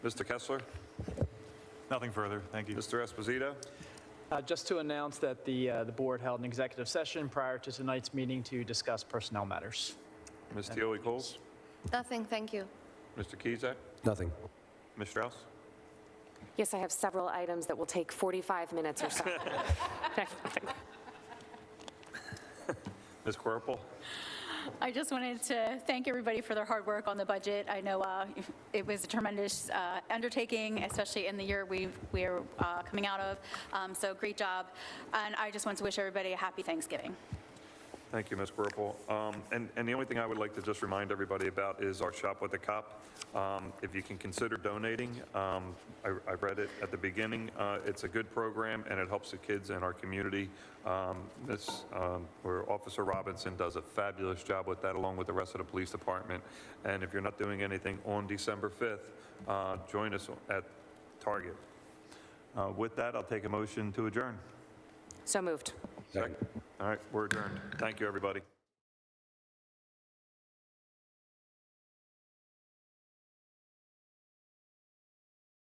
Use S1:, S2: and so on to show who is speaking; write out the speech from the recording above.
S1: Mr. Kessler,
S2: Nothing further, thank you.
S1: Mr. Esposito,
S3: Uh, Just to announce that the, uh, the board held an executive session prior to tonight's meeting to discuss personnel matters.
S1: Ms. Teoli Coles,
S4: Nothing, thank you.
S1: Mr. Kizak,
S5: Nothing.
S1: Ms. Strauss.
S6: Yes, I have several items that will take 45 minutes or so.
S1: Ms. Quirrell,
S7: I just wanted to thank everybody for their hard work on the budget. I know uh, it was a tremendous uh, undertaking, especially in the year we we are uh, coming out of. Um, So great job. And I just want to wish everybody a happy Thanksgiving.
S1: Thank you, Ms. Quirrell. Um, And, and the only thing I would like to just remind everybody about is our Shop with the Cop. Um, If you can consider donating, um, I, I read it at the beginning, uh, it's a good program and it helps the kids in our community. Um, This, um, where Officer Robinson does a fabulous job with that along with the rest of the police department. And if you're not doing anything on December 5th, uh, join us at Target.
S2: Uh, With that, I'll take a motion to adjourn.
S6: So moved.
S1: All right, we're adjourned. Thank you, everybody.